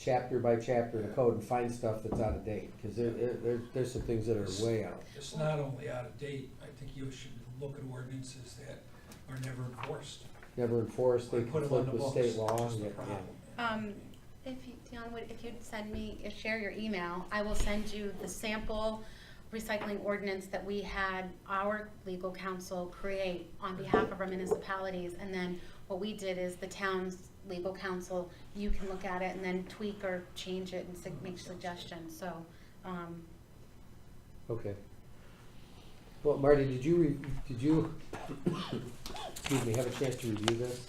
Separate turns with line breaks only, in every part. chapter by chapter in the code and find stuff that's out of date, because there, there, there- there's some things that are way out.
It's not only out of date, I think you should look at ordinances that are never enforced.
Never enforced, they
We put them on
conflict
the
with
books.
state law.
That's the
yeah, yeah.
problem.
Um, If you, Dion, would, if you'd send me, if- share your email, I will send you the sample recycling ordinance that we had our legal counsel create on behalf of our municipalities. And then what we did is the town's legal counsel, you can look at it and then tweak or change it and sug- make suggestions, so, um,
Okay. Well, Marty, did you, re- did you, excuse me, have a chance to review this?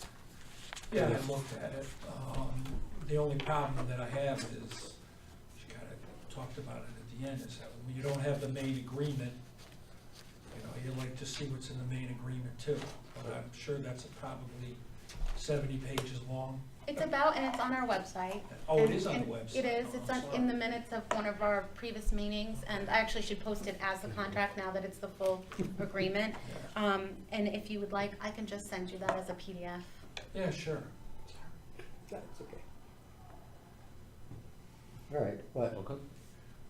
Yeah, I looked at it. Um, the only problem that I have is, she kind of talked about it at the end, is that when you don't have the main agreement, you know, you like to see what's in the main agreement too, but I'm sure that's probably seventy pages long.
it's about, and it's on our website.
Oh, it
And-
is on the
and
website.
It is,
Oh,
it's
I'm
on, in the
sorry.
minutes of one of our previous meetings, and I actually should post it as the contract now that it's the full agreement. Um, and if you would like, I can just send you that as a PDF.
Yeah, sure.
That's okay. All right, what,
Okay.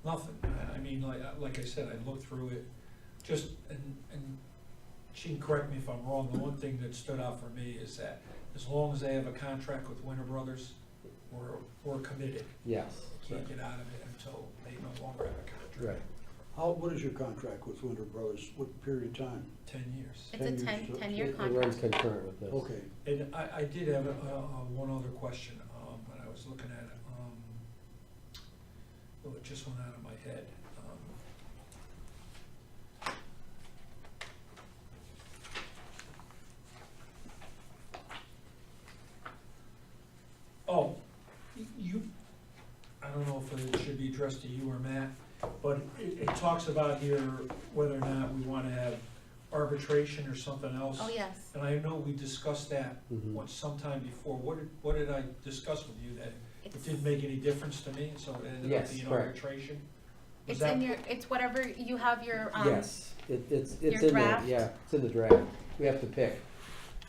Nothing. I- I mean, like, like I said, I looked through it, just, and, and she can correct me if I'm wrong, the one thing that stood out for me is that as long as they have a contract with Winter Brothers, we're, we're committed.
yes,
Can't get out of it until they no longer have a contract.
right.
How, what is your contract with Winter Brothers? What period of time?
Ten years.
It's a
10 years,
ten,
so it-
It
ten-year
it runs
contract.
concurrent with this.
Okay,
And I, I did have, uh, uh, one other question, um, when I was looking at it, um, well, it just went out of my head. um. Oh, y- you, I don't know if it should be addressed to you or Matt, but it, it talks about here whether or not we wanna have arbitration or something else.
Oh, yes.
And I know we discussed that
Mhm.
once sometime before. What did, what did I discuss with you that it
It's-
didn't make any difference to me, so it ended
Yes,
up being
correct.
arbitration? Was
It's in
that-
your, it's whatever, you have your, um,
Yes, it, it's,
your
it's in there,
draft?
yeah, it's in the draft. We have to pick.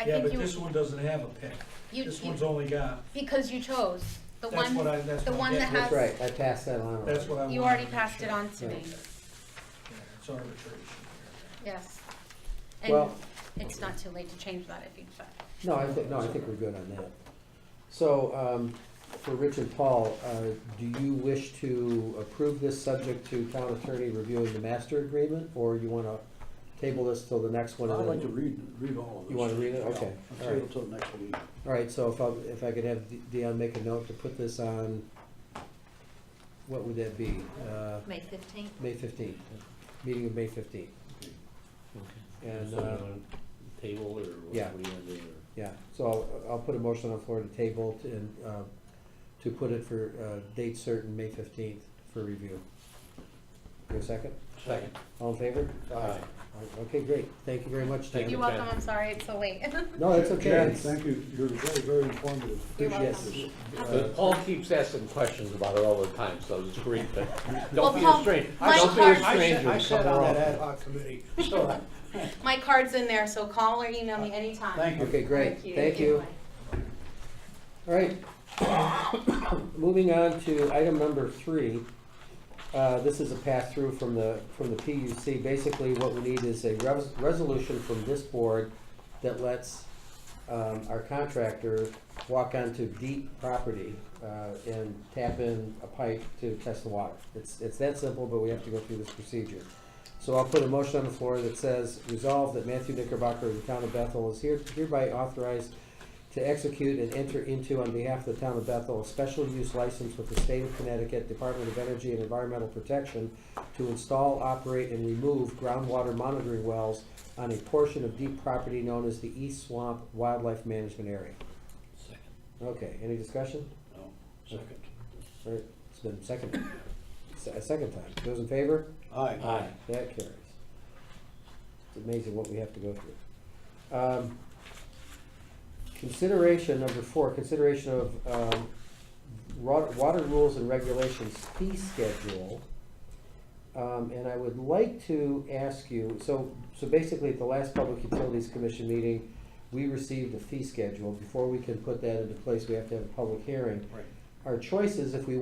I
Yeah,
think
but
you,
this one doesn't have a pick.
you,
This
you-
one's only got,
because you chose. The
that's what
one,
I, that's
the
what
one
I
that
get.
has-
That's right, I passed that on.
That's what I wanted
you already
to make
passed it
sure.
on to me,
Right.
Yeah, it's arbitration.
yes. And
Well-
it's not too late to change that if you decide.
No, I think, no, I think we're good on that. So, um, for Rich and Paul, uh, do you wish to approve this subject to town attorney reviewing the master agreement? Or you wanna table this till the next one?
I'd
and
like
then-
to read, read all of this.
You wanna read it? Okay,
Yeah,
all
I'll
right.
table till next week.
All right, so if I, if I could have Dion make a note to put this on, what would that be? Uh,
May fifteenth?
May fifteenth, meeting of May fifteenth. And,
So you
uh,
wanna Table or what what do you
yeah.
want to do?
Yeah, so I'll, I'll put a motion on the floor to table to- and, uh, to put it for, uh, date certain, May fifteenth, for review. Give a second? Uh,
Second.
All in favor?
Aye.
Okay, great, thank you very much,
Thank
Jan.
You're
you.
welcome,
Jen.
I'm sorry it's so late.
No, it's
Jan,
okay.
thank you. You're very, very informative.
You're welcome.
Yes.
But Paul keeps asking questions about it all the time, so it's great, but
Well,
don't be
Paul,
a stranger.
my
Don't be
part-
a
I
stranger
I
and
sat
come
on that
around.
ad hoc committee, so I-
My card's in there, so call or email me anytime.
thank you.
Okay, great, thank you. All right. Moving on to item number three. Uh, This is a pass-through from the, from the PUC. Basically, what we need is a res- resolution from this board that lets um, our contractor walk onto deep property uh, and tap in a pipe to test the water. It's, it's that simple, but we have to go through this procedure. So I'll put a motion on the floor that says, resolve that Matthew Knickerbocker of the town of Bethel is here- hereby authorized to execute and enter into on behalf of the town of Bethel a special use license with the state of Connecticut Department of Energy and Environmental Protection to install, operate, and remove groundwater monitoring wells on a portion of deep property known as the East Swamp Wildlife Management Area.
Second.
Okay, any discussion?
No, Second.
All right, It's been second, se- a second time. Those in favor?
Aye.
Aye.
That carries. It's amazing what we have to go through. Um, Consideration, number four, consideration of um, ro- water rules and regulations fee schedule. Um, And I would like to ask you, so, so basically at the last Public Utilities Commission meeting, we received a fee schedule. Before we can put that into place, we have to have a public hearing.
Right.
our choices, if we